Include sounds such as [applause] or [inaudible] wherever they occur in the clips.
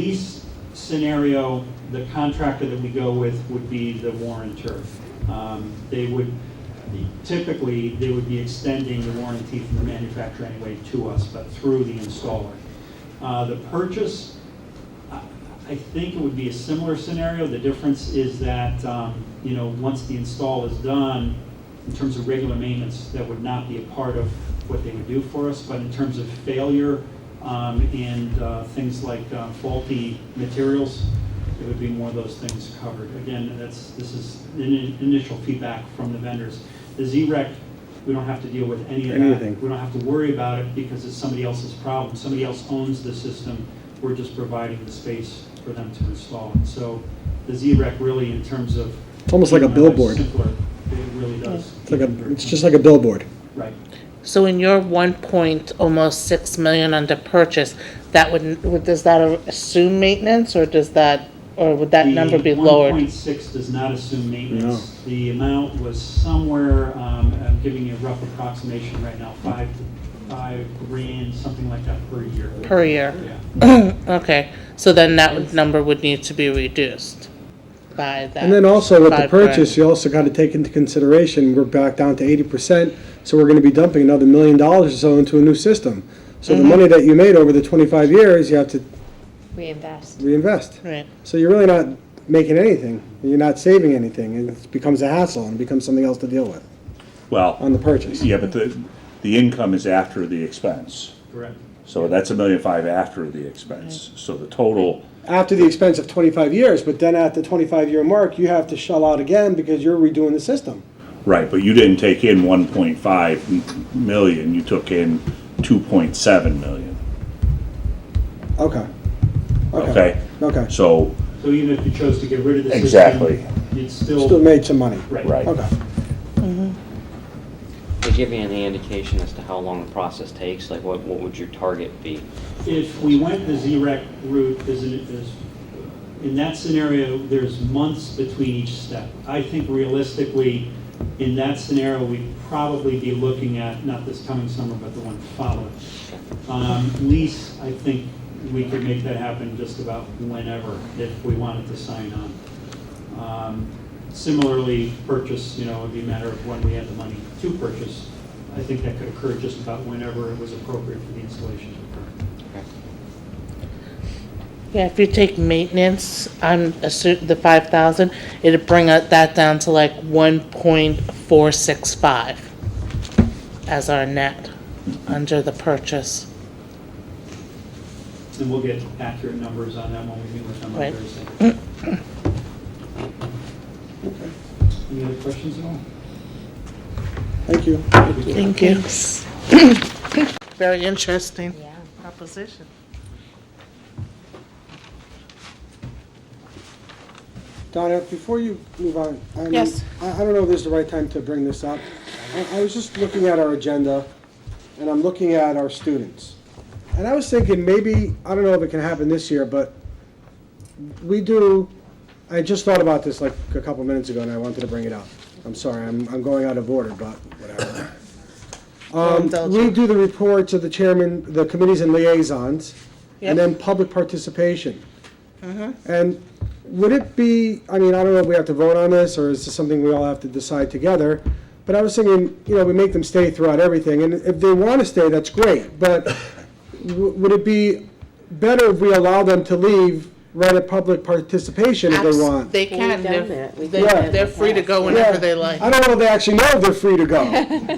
Lease scenario, the contractor that we go with would be the warrantor. Um, They would, typically, they would be extending the warranty from the manufacturer anyway to us, but through the installer. Uh, The purchase, I I think it would be a similar scenario. The difference is that, um, you know, once the install is done, in terms of regular maintenance, that would not be a part of what they would do for us. But in terms of failure um, and uh, things like uh, faulty materials, it would be more of those things covered. Again, that's, this is in- initial feedback from the vendors. The Z-Rec, we don't have to deal with any of that. Anything. We don't have to worry about it because it's somebody else's problem. Somebody else owns the system. We're just providing the space for them to install it. So the Z-Rec really, in terms of. It's almost like a keeping our lives billboard. Simpler, it really does. It's like a, it's just like a billboard. Right. So in your one point, almost six million under purchase, that would, would- does that assume maintenance, or does that, or would that number be The lowered? 1.6 does not assume maintenance. The amount was somewhere, um, I'm giving you a rough approximation right now, five, five grand, something like that per year. Per year? Yeah. Okay, so then that would- number would need to be reduced by that. And then also with the five grand. purchase, you also got to take into consideration, we're back down to eighty percent, so we're going to be dumping another million dollars or so into a new system. So Mm-hmm. the money that you made over the twenty-five years, you have to reinvest. reinvest. Right, So you're really not making anything. You're not saving anything. and It becomes a hassle and it becomes something else to deal with on Well, the purchase. yeah, but the, the income is after the expense. Correct. So that's a million five after the expense. So the total, After the expense of twenty-five years, but then at the twenty-five year mark, you have to shell out again because you're redoing the system. right, but you didn't take in one point five million, you took in two point seven million, Okay. okay? Okay. So, So even if you chose to get rid of the system. Exactly. It's Still still, made some money. right. right. Okay. They give you any indication as to how long the process takes? Like, what, what would your target be? If we went the Z-Rec route, there's, an- there's, in that scenario, there's months between each step. I think realistically, in that scenario, we'd probably be looking at, not this coming summer, but the one following. Um, Lease, I think we could make that happen just about whenever, if we wanted to sign on. Um, Similarly, purchase, you know, would be a matter of when we had the money to purchase. I think that could occur just about whenever it was appropriate for the installation to occur. yeah, if you take maintenance, I'm assu- the five thousand, it'd bring it- that down to like one point four six five as our net under the purchase. And we'll get accurate numbers on that when we meet with them on Right. Mm-hmm. Thursday. Any other questions at all? Thank you. Thank you. [clears throat] Very interesting Yeah. proposition. Donna, before you move on, I mean, Yes. I, I don't know if this is the right time to bring this up. I, I was just looking at our agenda, and I'm looking at our students. And I was thinking, maybe, I don't know if it can happen this year, but we do, I just thought about this like a couple minutes ago, and I wanted to bring it up. I'm sorry, I'm, I'm going out of order, but [laughs] whatever. Um, Indulge we me. do the reports of the chairman, the committees and liaisons, Yep. and then public participation. And would it be, I mean, I don't know if we have to vote on this, or is this something we all have to decide together? But I was thinking, you know, we make them stay throughout everything, and if they want to stay, that's great, but w- would it be better if we allow them to leave right at public participation if they want? They We've can, done they're, that. We've they- done that in they're, the free to past. go whenever they like. I don't know if they actually know if they're free to go.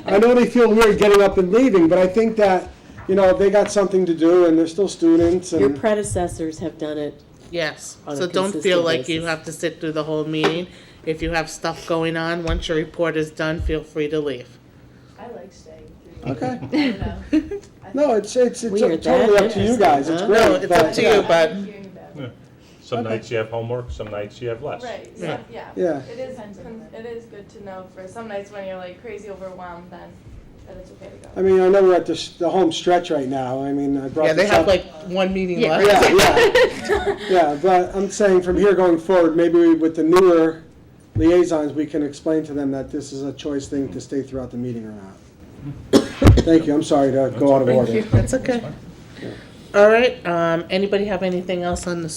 I know they feel weird getting up and leaving, but I think that, you know, they got something to do, and they're still students, Your and, predecessors have done it. Yes, on a so don't feel consistent like you basis. have to sit through the whole meeting. If you have stuff going on, once your report is done, feel free to leave. I like staying [laughs] through, okay. you know, No, it's, it's, it's We are that totally up to you interesting, guys, it's huh? great. No, it's up but- to you, but hearing about it. Some nights you have homework, some nights you have less. Right, so, yeah. Yeah. It is, con- it is good to know for some nights when you're like crazy overwhelmed, then that it's okay to go. I mean, I know we're at the, s- the home stretch right now, I mean, I yeah, brought they this have up. like one meeting Yeah, left. Yeah, [laughs] yeah. [laughs] Yeah, but I'm saying from here going forward, maybe we- with the newer liaisons, we can explain to them that this is a choice thing to stay throughout the [coughs] meeting or not. Thank you, I'm sorry to go out of order. That's okay. All right, um, anybody have anything else on this